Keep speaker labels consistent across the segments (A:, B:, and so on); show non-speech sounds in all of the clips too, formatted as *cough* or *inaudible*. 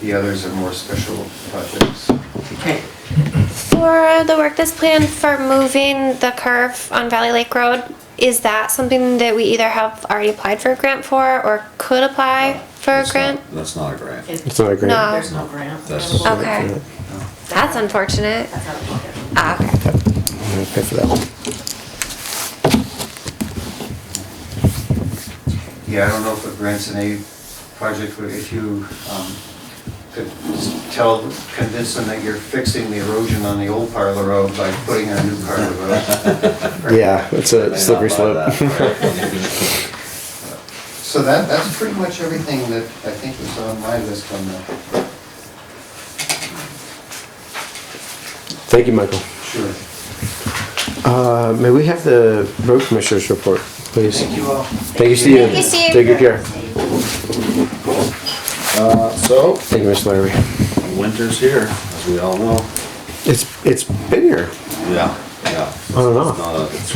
A: The others are more special projects.
B: Okay.
C: For the work that's planned for moving the curve on Valley Lake Road, is that something that we either have already applied for a grant for or could apply for a
D: That's not-
C: grant?
D: That's not a grant.
B: It's-
E: It's not a grant.
C: No.
B: There's no grant.
D: That's-
B: available.
C: Okay, that's unfortunate.
B: That's out of pocket.
C: Ah, okay.
E: I'm gonna pay for that one.
A: Yeah, I don't know if a grants and aid project, would if you um, could s- tell, convince them that you're fixing the erosion on the old part of the road by putting in a new part of the road.
E: Yeah, it's
D: They may
E: a
D: not
E: slippery
D: buy
E: slope.
D: that, right?
A: So that, that's pretty much everything that I think was on my list on the,
E: *laughs* Thank you, Michael.
A: sure.
E: Uh, may we have the road commissioners report, please?
A: Thank you all.
E: Thank you, Steve.
C: Thank you, Steve.
E: Take good care.
D: Uh, So,
E: Thank you, Mr. Larry.
D: winter's here, as we all know.
E: It's, it's been here.
D: Yeah, yeah.
E: I don't know.
D: It's not a- It's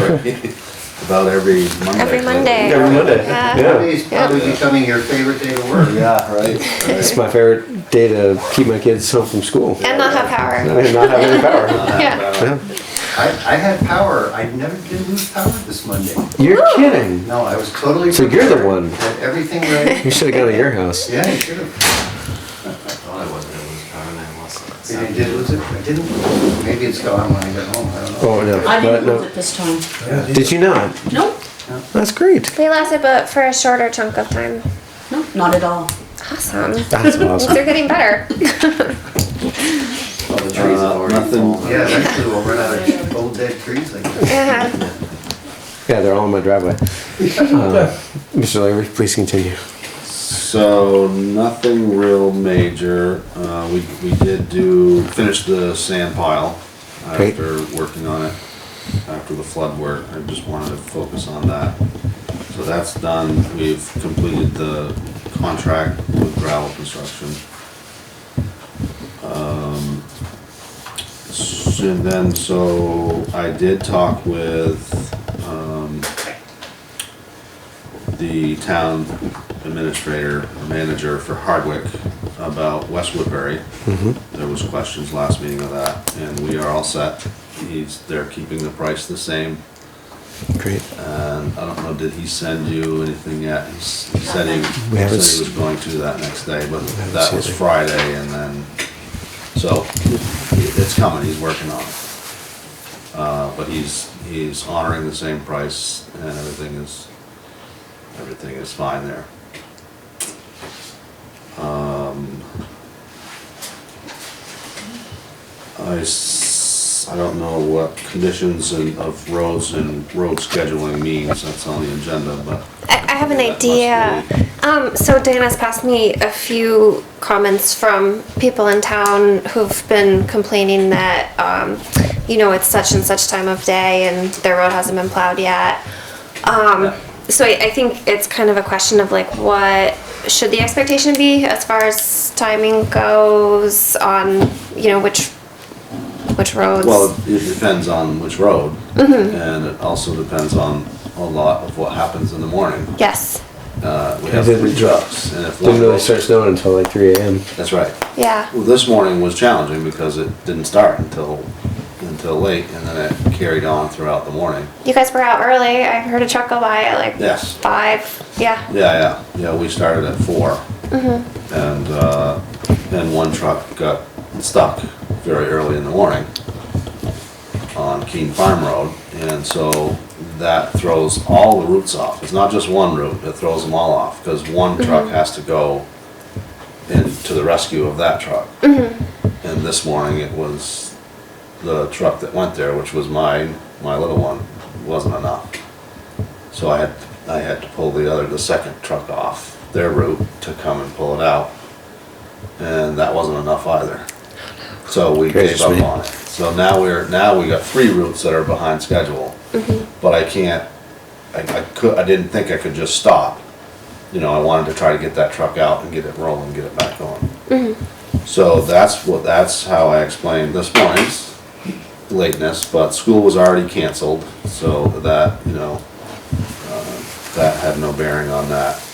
D: right, *laughs* about every Monday.
C: Every Monday.
E: Every Monday.
C: Yeah.
E: Yeah.
A: Monday's probably becoming your favorite day to work.
D: Yeah,
E: *laughs*
D: right.
E: It's my favorite day to keep my kids home from school.
C: And not have power.
E: And not have any power.
C: *laughs* Yeah.
D: Uh,
E: Yeah.
A: I, I had power, I never did lose power this Monday.
E: You're kidding.
A: No, I was totally.
E: So you're the
A: prepared.
E: one.
A: Had everything ready.
E: You should have gone to your house.
A: Yeah, I should have.
F: thought I was gonna lose power and I lost it.
A: I did lose it, I didn't. lose it. Maybe it's gone when I get home, I don't know.
E: Oh, no.
B: I didn't
E: But
B: move
E: no.
B: it this time.
E: Did you not?
B: Nope,
E: That's great.
C: They lasted but for a shorter chunk of time.
B: no, not at all.
C: Awesome.
E: That's awesome.
C: They're getting better.
F: All the trees
D: Uh,
F: have already
D: nothing-
F: fallen.
A: Yeah, actually, we'll run out of old dead trees like that.
C: *laughs* Yeah.
E: Yeah, they're all in my driveway. Uh, Mr. Larry, please continue.
D: So, nothing real major. Uh, we, we did do, finish the sand pile
E: Great.
D: after working on it, after the flood work. I just wanted to focus on that. So that's done. We've completed the contract with gravel construction. Um, s- And then, so I did talk with, um, the town administrator, or manager for Hardwick about West Woodbury.
E: Mm-hmm.
D: There was questions last meeting of that, and we are all set. He's, they're keeping the price the same,
E: Great.
D: and I don't know, did he send you anything yet? He s- he said he,
E: We
D: said
E: haven't
D: he
E: s-
D: was going to that next day, but
E: haven't
D: that
E: seen
D: was
E: it.
D: Friday, and then, so, it- it's coming, he's working on it. Uh, but he's, he's honoring the same price, and everything is, everything is fine there. Um, I, s- I don't know what conditions and of roads and road scheduling means, that's on the agenda, but.
C: I, I have an
D: That must be-
C: idea. Um, so Dana's passed me a few comments from people in town who've been complaining that, um, you know, it's such and such time of day and their road hasn't been plowed yet. Um, so I, I think it's kind of a question of like, what should the expectation be as far as timing goes on, you know, which, which roads?
D: Well, it depends on which road, and it also depends on a lot of what happens in the morning.
C: Yes,
D: Uh, we
E: I
D: have
E: didn't-
D: three trucks, and if one
E: Didn't really
D: goes,
E: start snowing until like 3 a.m.
D: that's right.
C: yeah,
D: Well, this morning was challenging because it didn't start until, until late, and then it carried on throughout the morning.
C: you guys were out early, I heard a truck go by at like
D: Yes.
C: five, yeah.
D: Yeah, yeah, yeah, we started at 4 And, uh, and one truck got stuck very early in the morning on Keene Farm Road, and so that throws all the routes off. It's not just one route, it throws them all off, because one truck has to go in to the rescue of that truck. And this morning, it was the truck that went there, which was mine, my little one, wasn't enough. So I had, I had to pull the other, the second truck off their route to come and pull it out. And that wasn't enough either. So we gave
E: Gracious
D: up
E: me.
D: on it. So now we're, now we got three routes that are behind schedule. But I can't, I, I could, I didn't think I could just stop. You know, I wanted to try to get that truck out and get it rolling, get it back on. So that's what, that's how I explained this morning's lateness, but school was already canceled, so that, Uh, you know, uh, that had no bearing on that.